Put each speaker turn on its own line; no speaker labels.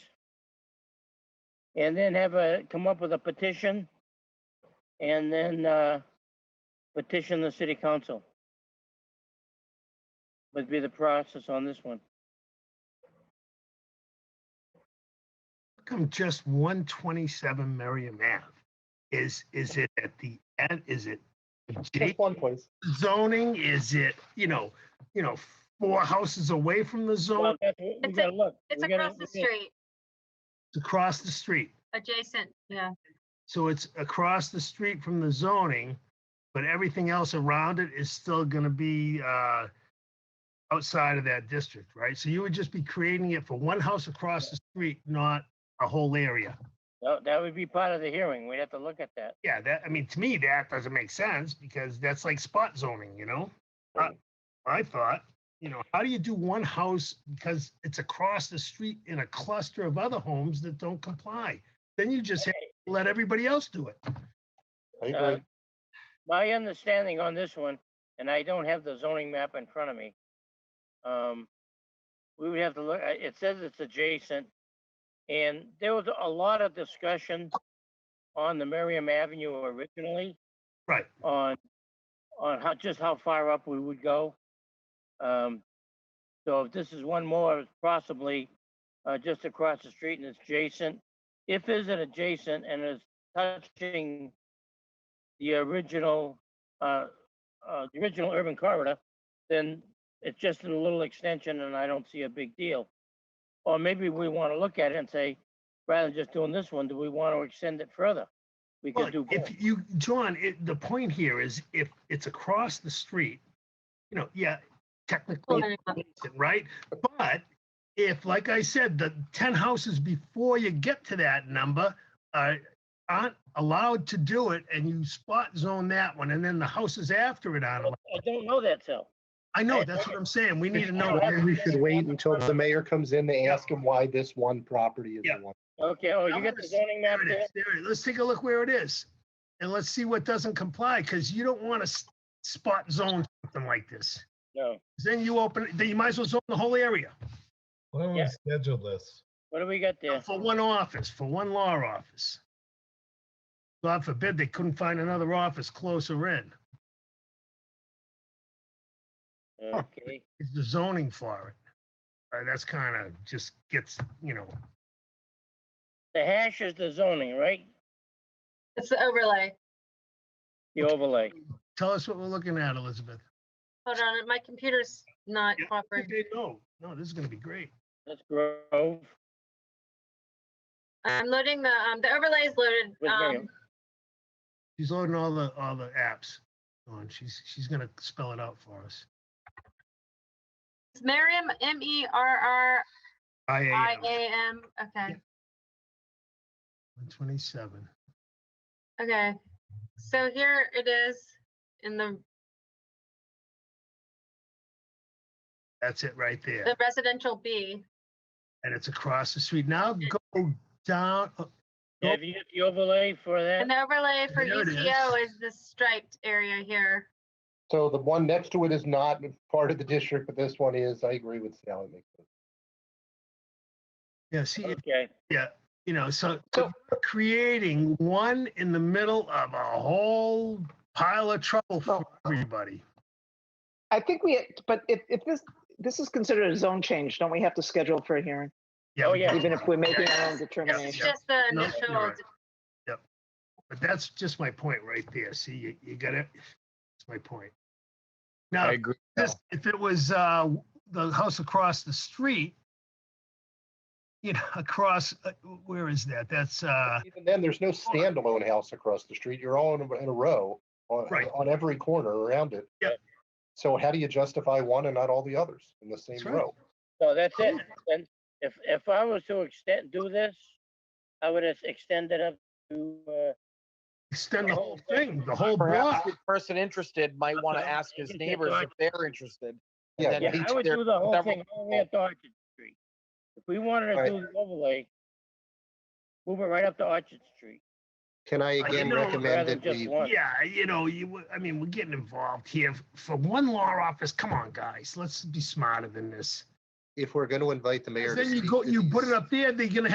and then have a, come up with a petition, and then uh, petition the city council. Would be the process on this one.
Come just one twenty-seven Merriam Ave. Is, is it at the end, is it
Just one place.
zoning? Is it, you know, you know, four houses away from the
Well,
zone,
that's what we
It's a-
gotta look.
It's
We gotta-
across the
we gotta-
street,
across the street?
adjacent, yeah.
So it's across the street from the zoning, but everything else around it is still gonna be, uh, outside of that district, right? So you would just be creating it for one house across the street, not a whole area.
That that would be part of the hearing. We'd have to look at that.
Yeah, that, I mean, to me, that doesn't make sense because that's like spot zoning, you know? I, I thought, you know, how do you do one house because it's across the street in a cluster of other homes that don't comply? Then you just let everybody else do it.
I
Uh,
agree.
My understanding on this one, and I don't have the zoning map in front of me. Um, we would have to look, uh, it says it's adjacent. And there was a lot of discussion on the Merriam Avenue originally.
Right.
On, on how, just how far up we would go. Um, so if this is one more, it's possibly, uh, just across the street and it's adjacent. If is it adjacent and it's touching the original, uh, uh, the original urban corridor, then it's just a little extension and I don't see a big deal. Or maybe we want to look at it and say, rather than just doing this one, do we want to extend it further? We
Well,
could do both.
If you, John, it, the point here is if it's across the street, you know, yeah, technically,
Pulling up.
right? But if, like I said, the ten houses before you get to that number are, aren't allowed to do it and you spot zone that one and then the houses after it aren't allowed.
I don't know that, Sal.
I know, that's what I'm saying. We need to know.
I
We should wait until the mayor comes in to
Yeah.
ask him why this one property is
Yeah.
the one.
Okay, oh, you got the
Numbers,
zoning map
There it
there?
is. There it is. Let's take a look where it is. And let's see what doesn't comply, because you don't want to spot zone something like this.
No.
then you open, then you might as well zone the whole area
Why don't we
Yeah.
schedule this?
What do we got there?
for one office, for one law office. God forbid they couldn't find another office closer in.
Okay,
It's the zoning for it. Uh, that's kind of just gets, you know,
the hash is the zoning, right?
It's the overlay.
The overlay.
tell us what we're looking at, Elizabeth.
Hold on, my computer's not
Yeah,
cooperating.
Okay, no, no, this is gonna be great.
That's Grove.
I'm loading the, um, the overlay is loaded.
With Miriam.
Um,
She's loading all the, all the apps on. She's, she's gonna spell it out for us.
it's Merriam, M E R R
I
I
A
A M. Okay,
one twenty-seven.
okay. So here it is in the,
That's it right there.
the residential B.
And it's across the street. Now go down, uh,
Have you got the overlay for that?
And the overlay for
There it is.
UCO is this striped area here.
So the one next to it is not part of the district, but this one is. I agree with Sally. McPherson.
yeah, see, it-
Okay,
you know, so so we're creating one in the middle of a whole pile of trouble for
Oh.
everybody.
I think we, but if, if this, this is considered a zone change, don't we have to schedule for a hearing?
Oh,
we
yeah.
do.
Even if we're making our own
It's
determination?
just the
No, you're
initial,
right. Yep. But that's just my point right there. See, you, you got it. That's my point. Now, if
agree.
this, if it was, uh, the house across the street, you know, across, uh, where is that? That's, uh,
Even then, there's no standalone house across the street. You're all in a- in a row on,
Right.
on every corner around it.
Yep.
So how do you justify one and not all the others in the same
That's right.
row?
so that's it. And if, if I was to extend, do this, I would have extended up to, uh,
extend the
The
whole
whole
thing, the whole block.
Perhaps the person interested might want to ask his
Yeah,
neighbors if they're interested.
Yeah,
And
yeah,
then
I
each
would
their,
do the whole
several
thing all the way up to Orchard Street. If we wanted to
Right.
do the overlay, move it right up to Orchard Street.
Can I
again know- recommend
rather than just one.
Yeah, you know, you, w- I mean, we're getting involved here for one law office. Come on, guys, let's be smarter than this.
if we're going to invite the
'Cause Then you go, you put it up there, they're gonna